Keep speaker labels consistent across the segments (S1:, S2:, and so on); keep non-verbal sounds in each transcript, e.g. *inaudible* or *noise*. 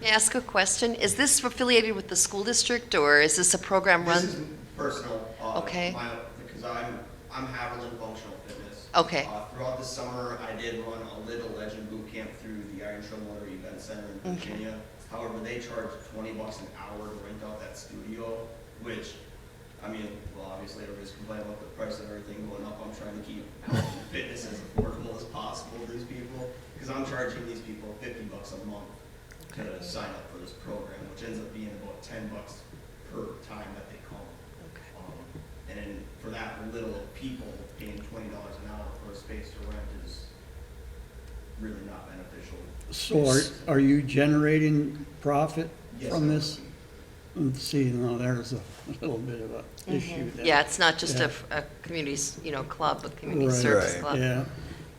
S1: May I ask a question? Is this affiliated with the school district, or is this a program run?
S2: This is personal. uh,
S1: Okay.
S2: my- Because I'm, I'm Haviland Functional Fitness.
S1: Okay.
S2: Uh, Throughout the summer, I did run a little legend boot camp through the Iron Trail Motor Event Center in
S1: Okay.
S2: Virginia. However, they charge twenty bucks an hour to rent out that studio, which, I mean, well, obviously everybody's complaining about the price of everything going up. I'm trying to keep health and fitness as affordable as possible to these people, because I'm charging these people fifty bucks a month to sign up for this program, which ends up being about ten bucks per time that they come. Um, And then for that little of people, paying twenty dollars an hour for a space to rent is really not beneficial.
S3: So are, are you generating profit
S2: Yes,
S3: from
S2: I-
S3: this? Let's See, now there's a little bit of a issue there.
S1: Mm-hmm. Yeah, it's not just a,
S3: Yeah.
S1: f- a community, s- you know, club, a community
S3: Right.
S1: service
S4: Right.
S1: club.
S3: Yeah,
S1: Um,
S5: What do we,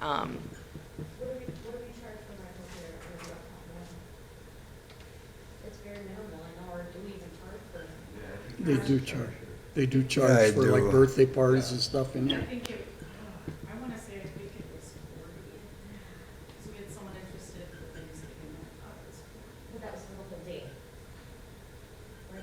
S5: what do we charge for rental here or do I not know? It's very minimal, I know, or do we even charge for?
S3: they do charge, they do
S4: I
S3: charge for like
S4: do.
S3: birthday parties and stuff in
S6: I
S3: here.
S6: think it, uh, I wanna say, I think it was forty, because we had someone interested for Thanksgiving, I thought it was forty.
S5: But that was the local date. Right?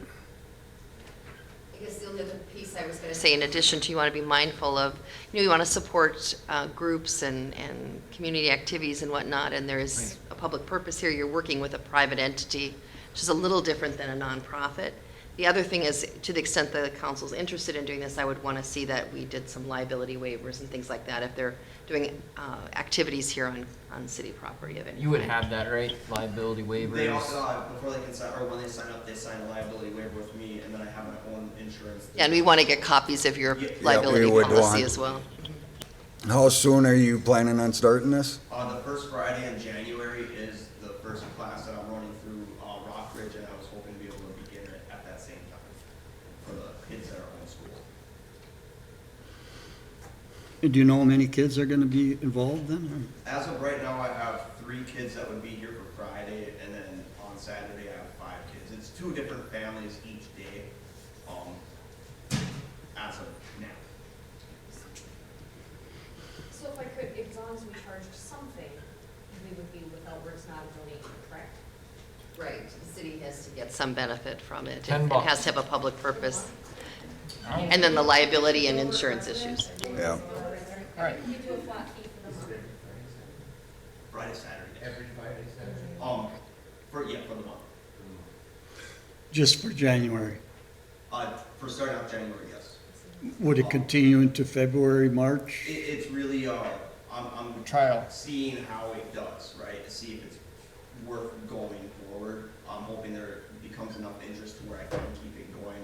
S1: I guess the only other piece I was going to say, in addition to, you want to be mindful of, you know, you want to support uh, groups and, and community activities and whatnot, and there is a public purpose here. You're working with a private entity, which is a little different than a nonprofit. The other thing is, to the extent that the council's interested in doing this, I would want to see that we did some liability waivers and things like that if they're doing uh, activities here on, on city property of any
S7: You would
S1: kind.
S7: have that, right? Liability waivers.
S2: They also, uh, before they can sign, or when they sign up, they sign a liability waiver with me, and then I have my own insurance.
S1: Yeah, And we want to get copies of your
S2: Yeah, we
S1: liability
S4: would
S1: policy
S4: want.
S1: as well.
S4: How soon are you planning on starting this?
S2: Uh, the first Friday in January is the first class that I'm running through, uh, Rockridge, and I was hoping to be able to begin it at that same time for the kids that are on school.
S3: And Do you know how many kids are gonna be involved then?
S2: As of right now, I have three kids that would be here for Friday, and then on Saturday, I have five kids. It's two different families each day, um, as of now.
S5: So if I could, as long as we charged something, we would be without, where it's not a donation, correct?
S1: Right, the city has to get some benefit from it.
S7: Ten
S1: It- It has
S7: bucks.
S1: to have a public purpose. And then the liability and insurance issues.
S4: Yeah.
S7: All right.
S5: We do a flat fee for the month.
S2: Friday, Saturday. Every Friday, Saturday? Um, for, yeah, for the month.
S3: Just for January?
S2: Uh, for starting out January, yes.
S3: Would it continue into February,
S2: It,
S3: March?
S2: it's really, uh, I'm, I'm.
S7: Trial.
S2: Seeing how it does, right, to see if it's worth going forward. I'm hoping there becomes enough interest to where I can keep it going.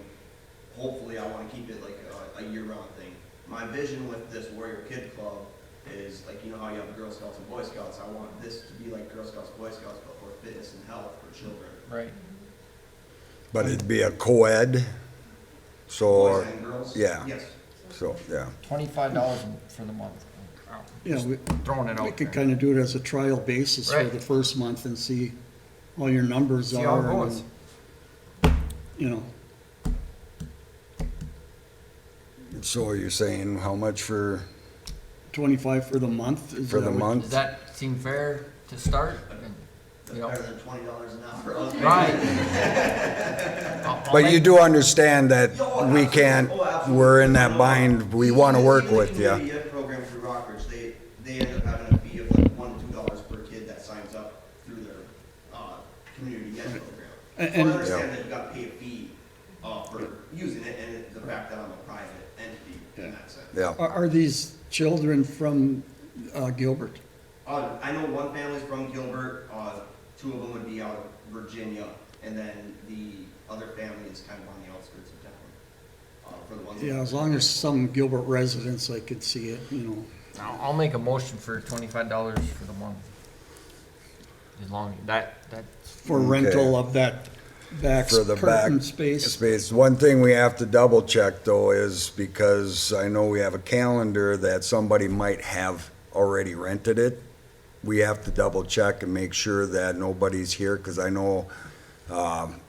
S2: Hopefully, I wanna keep it like a, a year-round thing. My vision with this Warrior Kid Club is, like, you know how you have Girl Scouts and Boy Scouts? I want this to be like Girl Scouts, Boy Scouts, but for fitness and health for children.
S7: Right.
S4: But it'd be a co-ed, so,
S2: Boys and girls?
S4: yeah.
S2: Yes.
S4: so, yeah.
S7: Twenty-five dollars for the month.
S3: Yeah, we,
S7: Throwing it
S3: we
S7: out
S3: could
S7: there.
S3: kinda do it as a trial basis for
S7: Right.
S3: the first month and see how your numbers are.
S7: See how it
S3: and,
S7: goes.
S3: You know,
S4: So you're saying how much for,
S3: twenty-five for the month? is
S4: for the
S3: that what-
S4: month?
S7: Does that seem fair to start?
S2: That's
S7: You know,
S2: better than twenty dollars an hour. I was making-
S7: *laughs* Right. I'll- I'll
S4: But you
S7: make-
S4: do understand that
S2: Oh,
S4: we
S2: absolutely.
S4: can't,
S2: Oh, absolutely.
S4: we're in that
S2: No.
S4: bind, we want to
S2: Even-
S4: work
S2: even the
S4: with you.
S2: community ed program through Rockridge, they, they end up having a fee of like one, two dollars per kid that signs up through their, uh, community ed program. So
S3: And-
S2: I
S3: and-
S2: understand that you gotta pay a fee, uh, for using it, and it- the fact that I'm a private entity in that sense.
S4: Yeah,
S3: Are, are these children from uh, Gilbert?
S2: Uh, I know one family's from Gilbert, uh, two of them would be out of Virginia, and then the other family is kind of on the outskirts of town. Uh, for the ones. that-
S3: Yeah, as long as some Gilbert residents, I could see it, you know.
S7: I'll, I'll make a motion for twenty-five dollars for the month. As long, that, that,
S3: for
S4: Okay.
S3: rental of that back
S4: for the back
S3: curtain space.
S4: space. One thing we have to double check though is because I know we have a calendar that somebody might have already rented it. We have to double check and make sure that nobody's here because I know um,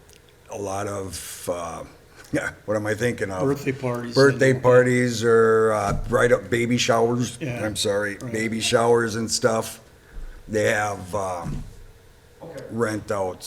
S4: a lot of, uh, *laughs* yeah, what am I thinking of?
S3: Birthday parties.
S4: Birthday parties or uh, right up baby showers.
S3: Yeah.
S4: I'm sorry,
S3: Right.
S4: baby showers and stuff. They have um,
S2: Okay.
S4: rent outs.